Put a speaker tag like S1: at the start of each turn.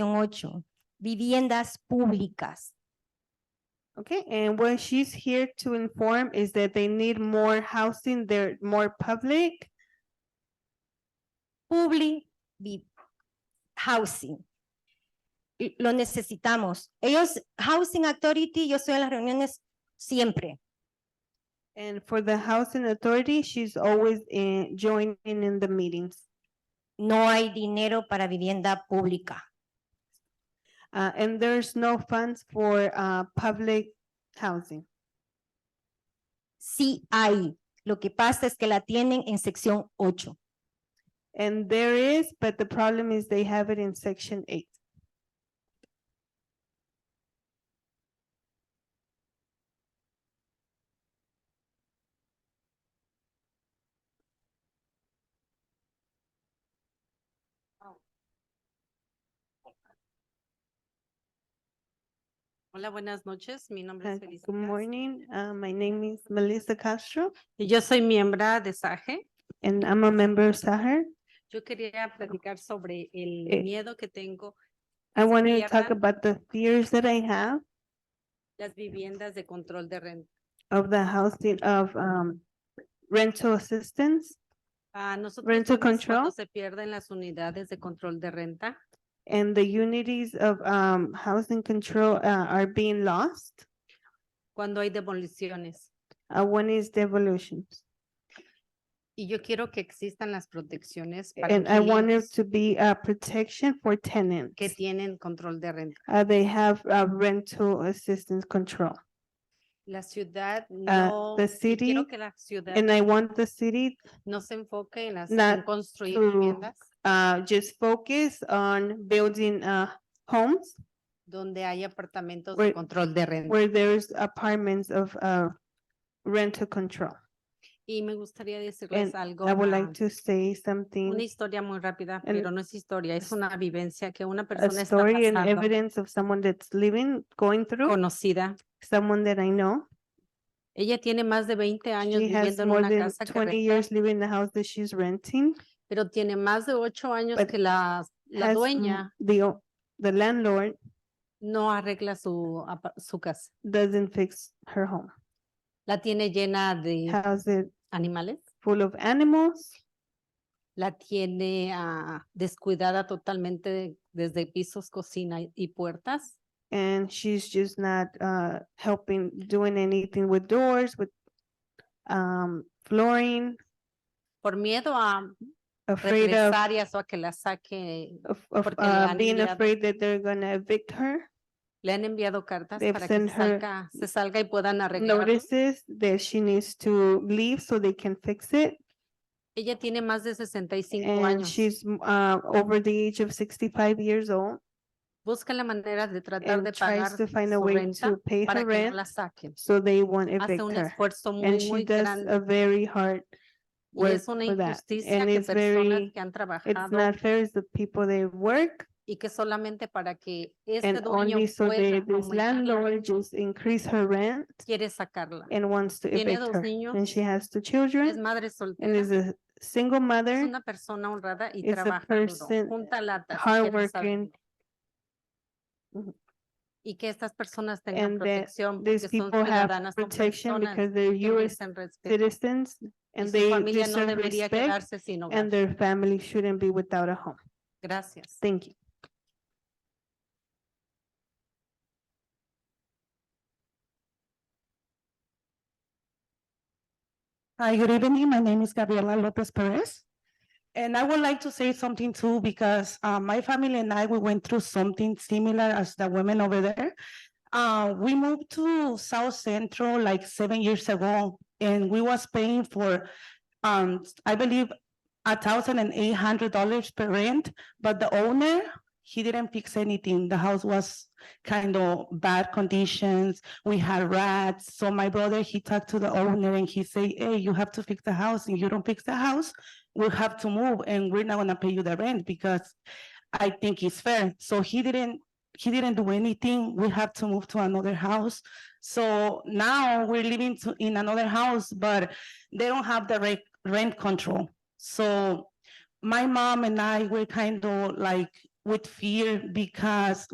S1: Opción ocho, viviendas públicas.
S2: Okay, and what she's here to inform is that they need more housing, they're more public,
S1: Public vi- housing. Y Lo necesitamos. Ellos, Housing Authority, yo estoy en las reuniones siempre.
S2: and for the housing authority, she's always in, joining in the meetings.
S1: No hay dinero para vivienda pública.
S2: Uh, and there's no funds for, uh, public housing.
S1: Sí hay. Lo que pasa es que la tienen en sección ocho.
S2: And there is, but the problem is they have it in section eight.
S3: Hola, buenas noches. Mi nombre
S2: Uh,
S3: es Felicia.
S2: Good morning, uh, my name is Melissa Castro,
S3: Y yo soy miembro de SAGE.
S2: and I'm a member of Sahar.
S3: Yo quería platicar sobre el
S2: Eh,
S3: miedo que tengo
S2: I
S3: Sí,
S2: wanted to talk
S3: ¿verdad?
S2: about the fears that I have
S3: las viviendas de control de renta.
S2: of the housing of, um, rental assistance.
S3: Ah, nosotros
S2: Rental
S3: vemos cuando
S2: control.
S3: se pierden las unidades de control de renta.
S2: and the unities of um housing control uh are being lost.
S3: Cuando hay demoliciones.
S2: Uh one is devolutions.
S3: Y yo quiero que existan las protecciones para
S2: And I want there
S3: inquilinos
S2: to be a protection for tenants.
S3: que tienen control de renta.
S2: Uh they have uh rental assistance control.
S3: La ciudad
S2: Ah,
S3: no.
S2: the
S3: y quiero
S2: city-
S3: que la ciudad
S2: And I want the city
S3: no se enfoque en las
S2: not
S3: en construir
S2: to-
S3: viviendas
S2: uh just focus on building uh homes
S3: donde hay apartamentos
S2: where-
S3: de control de renta.
S2: where there's apartments of uh rental control.
S3: Y me gustaría decirles
S2: And
S3: algo,
S2: I would
S3: ah,
S2: like to say
S3: una
S2: something,
S3: historia muy rápida,
S2: and
S3: pero no es historia, es
S2: s-
S3: una vivencia que una
S2: a
S3: persona está
S2: story and
S3: pasando,
S2: evidence of someone that's living, going through.
S3: conocida.
S2: someone that I know.
S3: Ella tiene más de 20 años
S2: She has
S3: viviendo en
S2: more
S3: una
S2: than
S3: casa que
S2: twenty
S3: renta,
S2: years living in the house that she's renting.
S3: pero tiene más de 8 años
S2: but
S3: que la, la
S2: has m-
S3: dueña
S2: The, o- the landlord
S3: no arregla su, apa- su casa.
S2: doesn't fix her home.
S3: La tiene llena de
S2: House is
S3: animales,
S2: full of animals.
S3: la tiene ah, descuidada totalmente desde pisos, cocina y- y puertas.
S2: And she's just not, uh, helping, doing anything with doors, with, um, flooring,
S3: Por miedo a
S2: afraid of,
S3: represalias o a que la saque
S2: of, of,
S3: porque le
S2: uh,
S3: han
S2: being
S3: enviado-
S2: afraid that they're gonna evict her.
S3: Le han enviado cartas
S2: They've
S3: para que
S2: sent her
S3: salga, se salga y puedan arreglarlo.
S2: Notices that she needs to leave so they can fix it.
S3: Ella tiene más de 65
S2: And
S3: años.
S2: she's m- uh, over the age of sixty-five years old
S3: Busca la manera de tratar de
S2: and
S3: pagar
S2: tries to find a
S3: su
S2: way
S3: renta
S2: to pay
S3: para
S2: her
S3: que no la
S2: rent,
S3: saquen.
S2: so they won't
S3: Hace
S2: evict
S3: un
S2: her.
S3: esfuerzo muy,
S2: And
S3: muy
S2: she does
S3: grande.
S2: a very hard,
S3: Y es
S2: work
S3: una
S2: for that.
S3: injusticia
S2: And
S3: que
S2: it's
S3: personas
S2: very-
S3: que han
S2: it's
S3: trabajado
S2: not fair, it's the people they work
S3: y que solamente para que este
S2: and
S3: dueño
S2: only so
S3: pueda
S2: they, this
S3: aumentarla,
S2: landlord just increase her rent
S3: quiere sacarla.
S2: and wants to
S3: Tiene
S2: evict
S3: dos
S2: her.
S3: niños,
S2: And she has two
S3: Es
S2: children
S3: madre
S2: and
S3: soltera,
S2: is a
S3: es
S2: single mother,
S3: una persona honrada y
S2: is a
S3: trabaja
S2: person
S3: duro, junta latas, quiere saberlo.
S2: hardworking. Mhm.
S3: y que estas personas tengan
S2: And that
S3: protección porque
S2: These
S3: son
S2: people have
S3: ciudadanas, son
S2: protection
S3: personas
S2: because they're
S3: que
S2: US
S3: merecen respeto
S2: citizens
S3: y
S2: and
S3: su
S2: they
S3: familia no
S2: deserve
S3: debería
S2: respect.
S3: quedarse sin hogar.
S2: and their family shouldn't be without a home.
S3: Gracias.
S2: Thank you.
S4: Hi, good evening. My name is Gabriela Lopez Perez. And I would like to say something too, because uh, my family and I, we went through something similar as the women over there. Uh, we moved to South Central like seven years ago, and we was paying for, um, I believe, a thousand and eight hundred dollars per rent, but the owner, he didn't fix anything. The house was kind of bad conditions we had rats. So my brother, he talked to the owner and he say, hey, you have to fix the house. If you don't fix the house, we'll have to move and we're not gonna pay you the rent because I think it's fair. So he didn't, he didn't do anything. We have to move to another house. So now we're living to, in another house, but they don't have the rent, rent control. So my mom and I, we're kind of like with fear because